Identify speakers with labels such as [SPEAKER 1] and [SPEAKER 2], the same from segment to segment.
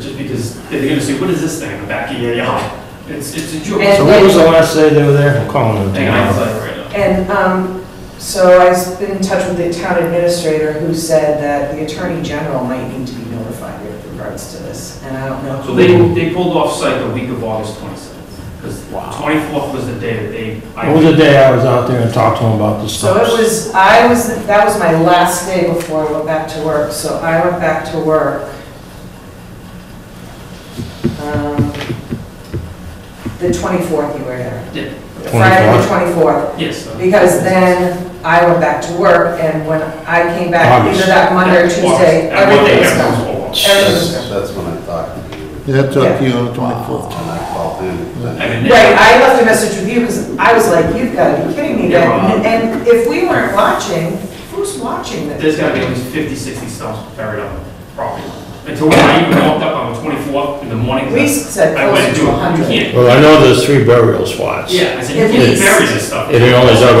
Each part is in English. [SPEAKER 1] Just because they're gonna say, what is this thing in the back of your yard? It's, it's a joke.
[SPEAKER 2] And-
[SPEAKER 3] So what was the last day they were there? I'm calling them
[SPEAKER 1] Hang on, I'm
[SPEAKER 3] tomorrow.
[SPEAKER 1] sorry, right now.
[SPEAKER 2] And um, so I've been in touch with the town administrator who said that the attorney general might need to be notified with regards to this, and I don't know.
[SPEAKER 1] So they, they pulled off site the week of August twenty-seventh, because twenty-fourth was the day that they. I
[SPEAKER 3] It was the day I was out there and talked to them about the
[SPEAKER 2] So it
[SPEAKER 3] stuff.
[SPEAKER 2] was, I was, that was my last day before I went back to work, so I went back to work. um, The 24th you were there.
[SPEAKER 1] Yeah.
[SPEAKER 2] Friday the 24th.
[SPEAKER 1] Yes. uh,
[SPEAKER 2] Because then I went back to work, and when I came back, either that Monday or
[SPEAKER 1] August.
[SPEAKER 2] Tuesday,
[SPEAKER 1] That Monday,
[SPEAKER 2] everything was
[SPEAKER 1] everything
[SPEAKER 2] gone.
[SPEAKER 1] was all off.
[SPEAKER 2] Everything was
[SPEAKER 4] That's, that's when I talked to you.
[SPEAKER 5] Yeah, I talked to you on the 24th.
[SPEAKER 4] And I called in.
[SPEAKER 1] I mean, they-
[SPEAKER 2] Right, I left a message with you, because I was like, you've got to be kidding me,
[SPEAKER 1] Yeah,
[SPEAKER 2] then.
[SPEAKER 1] well-
[SPEAKER 2] and if we weren't watching, who's watching this?
[SPEAKER 1] There's gotta be at least 50, 60 stumps buried on the property. Until when I even walked up on the twenty-fourth in the morning.
[SPEAKER 2] We said
[SPEAKER 1] I
[SPEAKER 2] closer
[SPEAKER 1] went
[SPEAKER 2] to
[SPEAKER 1] to,
[SPEAKER 2] a
[SPEAKER 1] you
[SPEAKER 2] hundred.
[SPEAKER 1] can't.
[SPEAKER 3] Well, I know there's three burial spots.
[SPEAKER 1] Yeah, I said, you
[SPEAKER 2] At
[SPEAKER 1] can't
[SPEAKER 2] least.
[SPEAKER 1] bury this stuff.
[SPEAKER 3] It only dug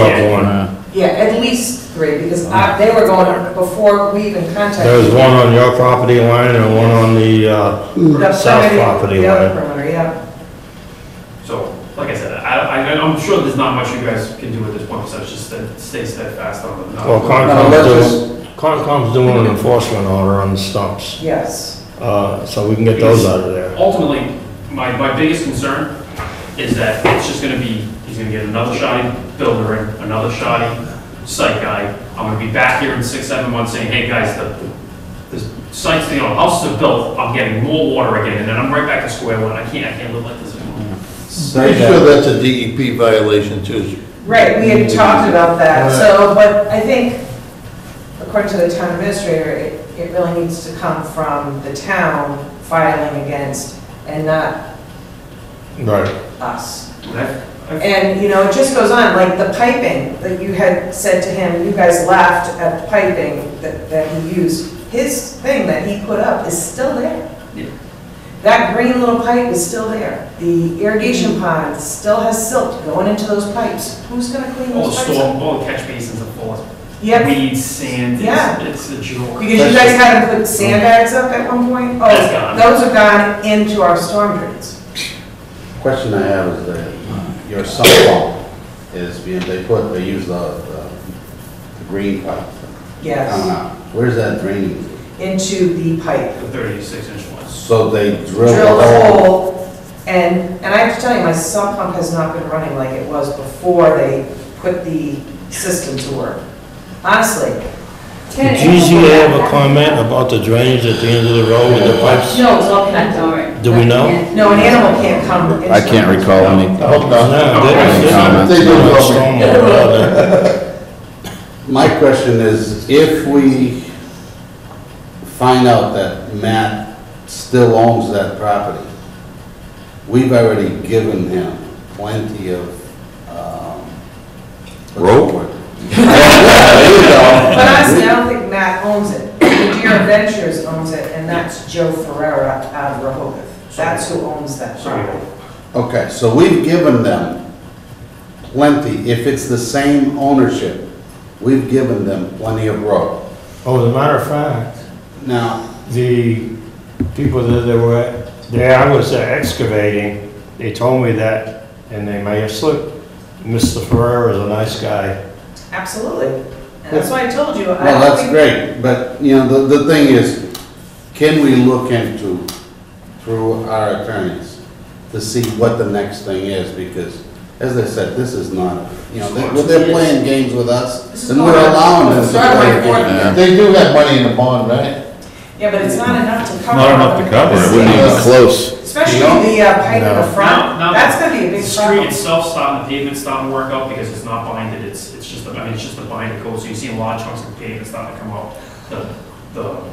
[SPEAKER 1] Yeah.
[SPEAKER 3] up one.
[SPEAKER 2] Yeah, at least three, because I- they were going, before we even contacted.
[SPEAKER 3] There was one on your property line and one on the, uh,
[SPEAKER 2] The
[SPEAKER 3] south
[SPEAKER 2] perimeter-
[SPEAKER 3] property
[SPEAKER 2] The other
[SPEAKER 3] line.
[SPEAKER 2] perimeter, yeah.
[SPEAKER 1] So, like I said, I, I, I'm sure there's not much you guys can do at this point, so it's just that stay steadfast on the.
[SPEAKER 3] well,
[SPEAKER 4] No,
[SPEAKER 3] Concom's
[SPEAKER 4] let's
[SPEAKER 3] doing, Concom's doing an enforcement order on the stumps.
[SPEAKER 2] yes.
[SPEAKER 3] Uh, so we can get those out of there.
[SPEAKER 1] Ultimately, my, my biggest concern is that it's just gonna be, he's gonna get another shoddy builder in, another shoddy site guy. I'm gonna be back here in six, seven months saying, hey, guys, the, the site's, you know, houses are built, I'm getting more water again, and then I'm right back to square one, I can't, I can't live like this anymore.
[SPEAKER 5] Pretty sure that's a DEP violation too.
[SPEAKER 2] Right, we had talked about that, so, but I think, according to the town administrator, it, it really needs to come from the town filing against and not
[SPEAKER 3] Right.
[SPEAKER 2] us.
[SPEAKER 1] I've- I've-
[SPEAKER 2] And, you know, it just goes on, like the piping, that you had said to him, you guys laughed at the piping that, that he used. His thing that he put up is still there.
[SPEAKER 1] Yeah.
[SPEAKER 2] That green little pipe is still there. The irrigation pond still has silt going into those pipes. Who's gonna clean
[SPEAKER 1] All the
[SPEAKER 2] those pipes up?
[SPEAKER 1] Oh, storm, all the catch basins are full of
[SPEAKER 2] Yep,
[SPEAKER 1] weeds, sand,
[SPEAKER 2] Yeah.
[SPEAKER 1] it's, it's a joke.
[SPEAKER 2] because you guys had to put sandbags up at one point.
[SPEAKER 1] That's gone.
[SPEAKER 2] Oh, those have gone into our storm drains.
[SPEAKER 4] Question I have is that your sump pump is being, they put, they use the, the the green pipe. coming
[SPEAKER 2] Yes,
[SPEAKER 4] out. Where's that draining?
[SPEAKER 2] into the pipe.
[SPEAKER 1] The thirty-six inch ones.
[SPEAKER 4] So they drill
[SPEAKER 2] Drill
[SPEAKER 4] the
[SPEAKER 2] the
[SPEAKER 6] Oh.
[SPEAKER 4] hole.
[SPEAKER 2] hole, and, and I have to tell you, my sump pump has not been running like it was before they put the system to work. Honestly.
[SPEAKER 3] Did GZA have a comment about the drainage at the end of the road with the pipes?
[SPEAKER 7] No, it's all connected, all right.
[SPEAKER 3] Do we know?
[SPEAKER 2] No, an animal can't come into.
[SPEAKER 6] I can't
[SPEAKER 2] the-
[SPEAKER 6] recall any,
[SPEAKER 3] Oh, No, they- they-
[SPEAKER 6] Comments?
[SPEAKER 3] they don't have storm water out there.
[SPEAKER 4] My question is, if we find out that Matt still owns that property, we've already given him plenty of, um... what's the
[SPEAKER 6] Rope?
[SPEAKER 4] word? There you
[SPEAKER 2] But honestly, I don't think Matt owns it. Deer Ventures owns it, and that's Joe Ferrera out of Rehoboth. That's who owns that
[SPEAKER 1] Sorry.
[SPEAKER 2] property.
[SPEAKER 4] go. Okay, so we've given them plenty, if it's the same ownership, we've given them plenty of rope.
[SPEAKER 3] Oh, as a matter of fact,
[SPEAKER 4] Now,
[SPEAKER 3] the people that they were, there I was excavating, they told me that, and they may have slipped. Mr. Ferrer is a nice guy.
[SPEAKER 2] Absolutely. And that's why I told you. I
[SPEAKER 4] well,
[SPEAKER 2] don't
[SPEAKER 4] that's
[SPEAKER 2] think-
[SPEAKER 4] great, but, you know, the, the thing is, can we look into, through our attorneys, to see what the next thing is, because, as I said, this is not, you know, they- they're playing games with us, and we're allowing them to play games.
[SPEAKER 5] They do have money in the bond, right?
[SPEAKER 2] Yeah, but it's not enough to cover.
[SPEAKER 6] not enough to cover, it wouldn't even close.
[SPEAKER 2] Especially the uh, pipe in the front.
[SPEAKER 1] No, no.
[SPEAKER 2] That's gonna be a
[SPEAKER 1] The
[SPEAKER 2] big
[SPEAKER 1] street
[SPEAKER 2] problem.
[SPEAKER 1] itself stopped, the pavement's stopped work out because it's not binded, it's, it's just, a- I mean, it's just a binder coat, so you see a lot of chunks of pavement starting to come out. The, the,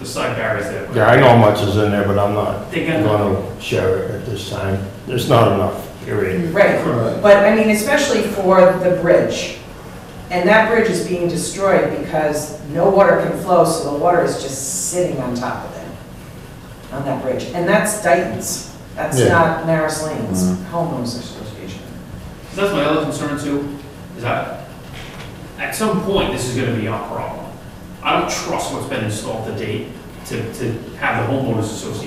[SPEAKER 1] the side barriers there.
[SPEAKER 3] Yeah, I know how much is in there, but I'm not
[SPEAKER 1] They got-
[SPEAKER 3] gonna share it at this time. There's not enough, period.
[SPEAKER 2] Right.
[SPEAKER 4] Right.
[SPEAKER 2] But I mean, especially for the bridge. And that bridge is being destroyed because no water can flow, so the water is just sitting on top of it, on that bridge. And that's Dayton's. That's
[SPEAKER 5] Yeah.
[SPEAKER 2] not Maris Lane's homeowners association.
[SPEAKER 1] That's my other concern too, is that at some point, this is gonna be our problem. I don't trust what's been installed to date to, to have the homeowners association